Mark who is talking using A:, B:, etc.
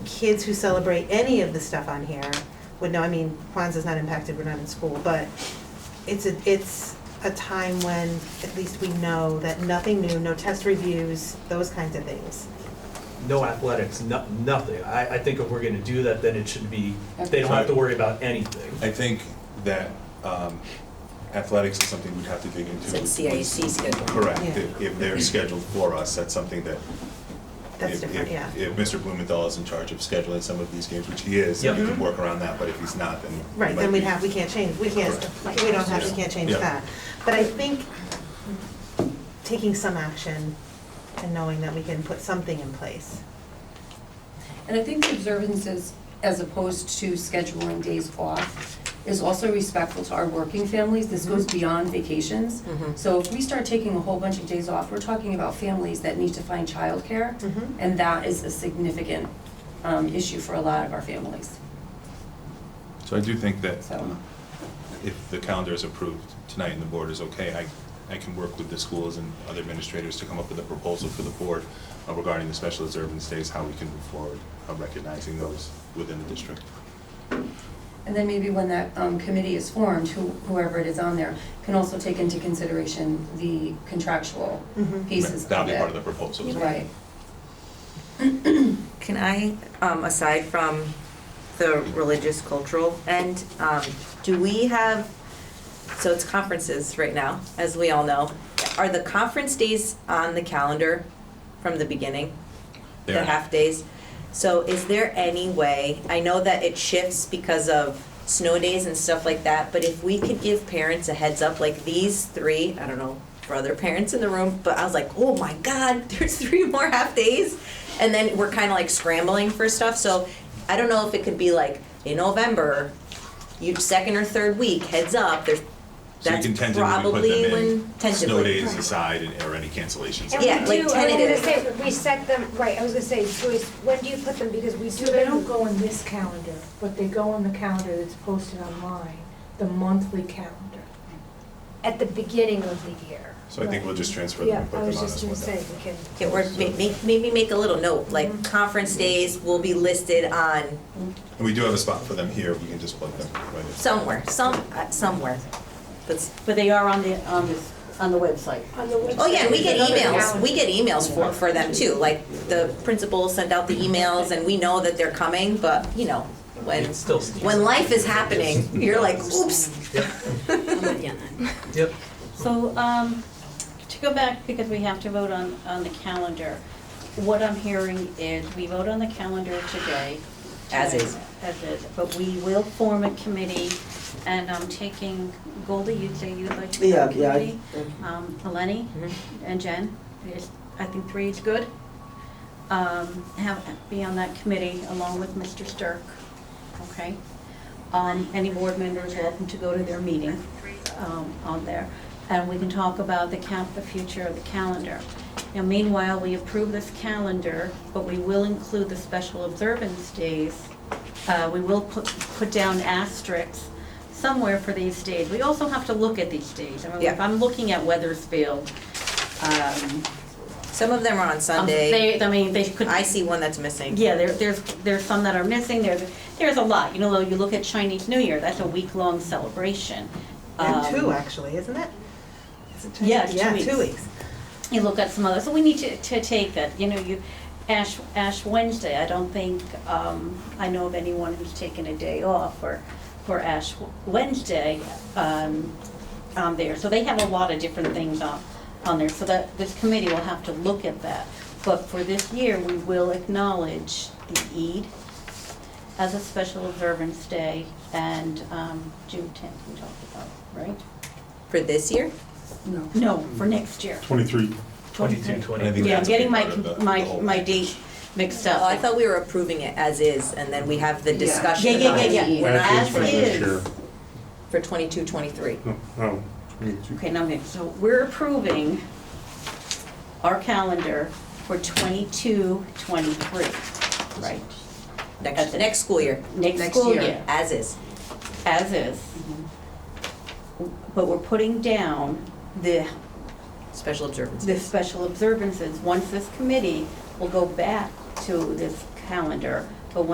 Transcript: A: kids who celebrate any of the stuff on here would know, I mean, Kwanzaa's not impacted, we're not in school, but it's a, it's a time when at least we know that nothing new, no test reviews, those kinds of things.
B: no athletics, no, nothing. I, I think if we're gonna do that, then it should be, they don't have to worry about anything.
C: I think that um, athletics is something we'd have to dig into.
D: It's like CIC schedule.
C: Correct,
A: Yeah.
C: if if they're scheduled for us, that's something that.
A: That's
C: if-
A: different,
C: if-
A: yeah.
C: If Mr. Blumenthal is in charge of scheduling some of these games, which he is, then
B: Yep.
C: you can work around that, but if he's not, then. it
A: Right,
C: might
A: then we'd
C: be-
A: have, we can't change, we can't,
C: Correct.
A: we don't have, we
C: Yeah.
A: can't change
C: Yeah.
A: that. But I think taking some action and knowing that we can put something in place.
D: And I think the observances, as opposed to scheduling days off, is also respectful to our working families. This goes beyond vacations.
A: Mhm.
D: So if we start taking a whole bunch of days off, we're talking about families that need to find childcare.
A: Mhm.
D: And that is a significant um, issue for a lot of our families,
C: So I do think that
D: so.
C: if the calendar is approved tonight and the board is okay, I, I can work with the schools and other administrators to come up with a proposal for the board uh, regarding the special observance days, how we can move forward, uh, recognizing those within the district.
D: And then maybe when that um, committee is formed, who- whoever it is on there, can also take into consideration the contractual
A: Mhm.
D: pieces of it.
C: That'll be part of the proposal.
D: Right.
E: Can I, um, aside from the religious cultural end, um, do we have, so it's conferences right now, as we all know. Are the conference days on the calendar from the beginning?
C: They
E: The
C: are.
E: half days? So is there any way, I know that it shifts because of snow days and stuff like that, but if we could give parents a heads up, like these three, I don't know, for other parents in the room, but I was like, oh my God, there's three more half days? And then we're kind of like scrambling for stuff, so I don't know if it could be like in November, you, second or third week, heads up, there's,
C: So you
E: that's
C: can tentatively put
E: probably
C: them
E: when,
C: in, snow
E: tentatively.
C: days aside, and- or any cancellations.
F: And
E: Yeah,
F: we
E: like
F: do- I was gonna
E: tentative.
F: say, we set them, right, I was gonna say, Joyce, when do you put them, because we do.
G: So they don't go in this calendar, but they go in the calendar that's posted online, the monthly calendar.
F: At the beginning of the year.
C: So I think we'll just transfer them
G: Yeah,
C: and put
G: I
C: them on
G: was
C: this
G: just
C: one.
G: gonna say,
F: We can,
E: Yeah, or ma- ma- maybe make a little note,
H: Mm-hmm.
E: like conference days will be listed on
C: And we do have a spot for them here, we can just plug them right in.
E: somewhere, some, uh, somewhere. That's,
H: But they are on the, on this, on the website.
G: On the website.
E: oh yeah, and we get
G: there's another
E: emails,
G: calendar.
E: we get emails for, for them too, like the principals send out the emails and we know that they're coming, but you know, when,
B: It's still sneaks.
E: when life is happening, you're like, oops.
B: Yep,
H: I'm with you on that.
B: yep.
H: So, um, to go back, because we have to vote on, on the calendar, what I'm hearing is we vote on the calendar today.
E: As is.
H: As is, but we will form a committee, and I'm taking, Goldie, you'd say you'd like to be
I: Yeah,
H: on the
I: yeah.
H: committee?
I: I-
H: Um, Eleni
E: Mm-hmm.
H: and Jen, yes, I think three is good. Um, have, be on that committee along with Mr. Stirk, okay? Um, any board member is welcome to go to their meeting, um, on there. And we can talk about the cap, the future of the calendar. Now meanwhile, we approve this calendar, but we will include the special observance days. Uh, we will put, put down asterisks somewhere for these days. We also have to look at these days. I mean, if
E: Yeah.
H: I'm looking at Weathersfield, um.
E: Some of them are on
H: um,
E: Sunday,
H: they- I mean, they could.
E: I see one that's missing.
H: Yeah, there, there's, there's some that are missing, there's, there's a lot, you know, you look at Chinese New Year, that's a week-long celebration.
A: And two,
H: Um,
A: actually, isn't it? Is it two?
H: Yeah, two weeks.
A: Yeah, two weeks.
H: you look at some other, so we need to, to take that, you know, you, Ash, Ash Wednesday, I don't think, um, I know of anyone who's taken a day off for, for Ash Wednesday, um, on there, so they have a lot of different things on, on there, so that, this committee will have to look at that. But for this year, we will acknowledge the Eid as a special observance day, and, um, June tenth, we talked about, right?
E: For this year?
H: No. No, for next year.
J: Twenty-three.
B: Twenty-two, twenty.
C: I think
H: Yeah, I'm
C: that's a big
H: getting my,
C: part of the-
H: my,
C: the whole
H: my
C: package.
H: date mixed
E: Oh, I
H: up.
E: thought we were approving it as is and then we have the
I: Yeah.
E: discussion
H: Yeah,
E: about
H: yeah,
E: it.
H: yeah, yeah.
E: We're not
H: As
J: for this
H: is.
J: year.
E: For twenty-two, twenty-three.
J: No, no, 22.
H: Okay, now, I'm- so we're approving our calendar for twenty-two, twenty-three, right?
E: Next, next school year,
H: Next
A: Next
H: school
A: year.
H: year,
E: as is.
H: as is. But we're putting down the,
E: Special observance.
H: the special observances. Once this committee will go back to this calendar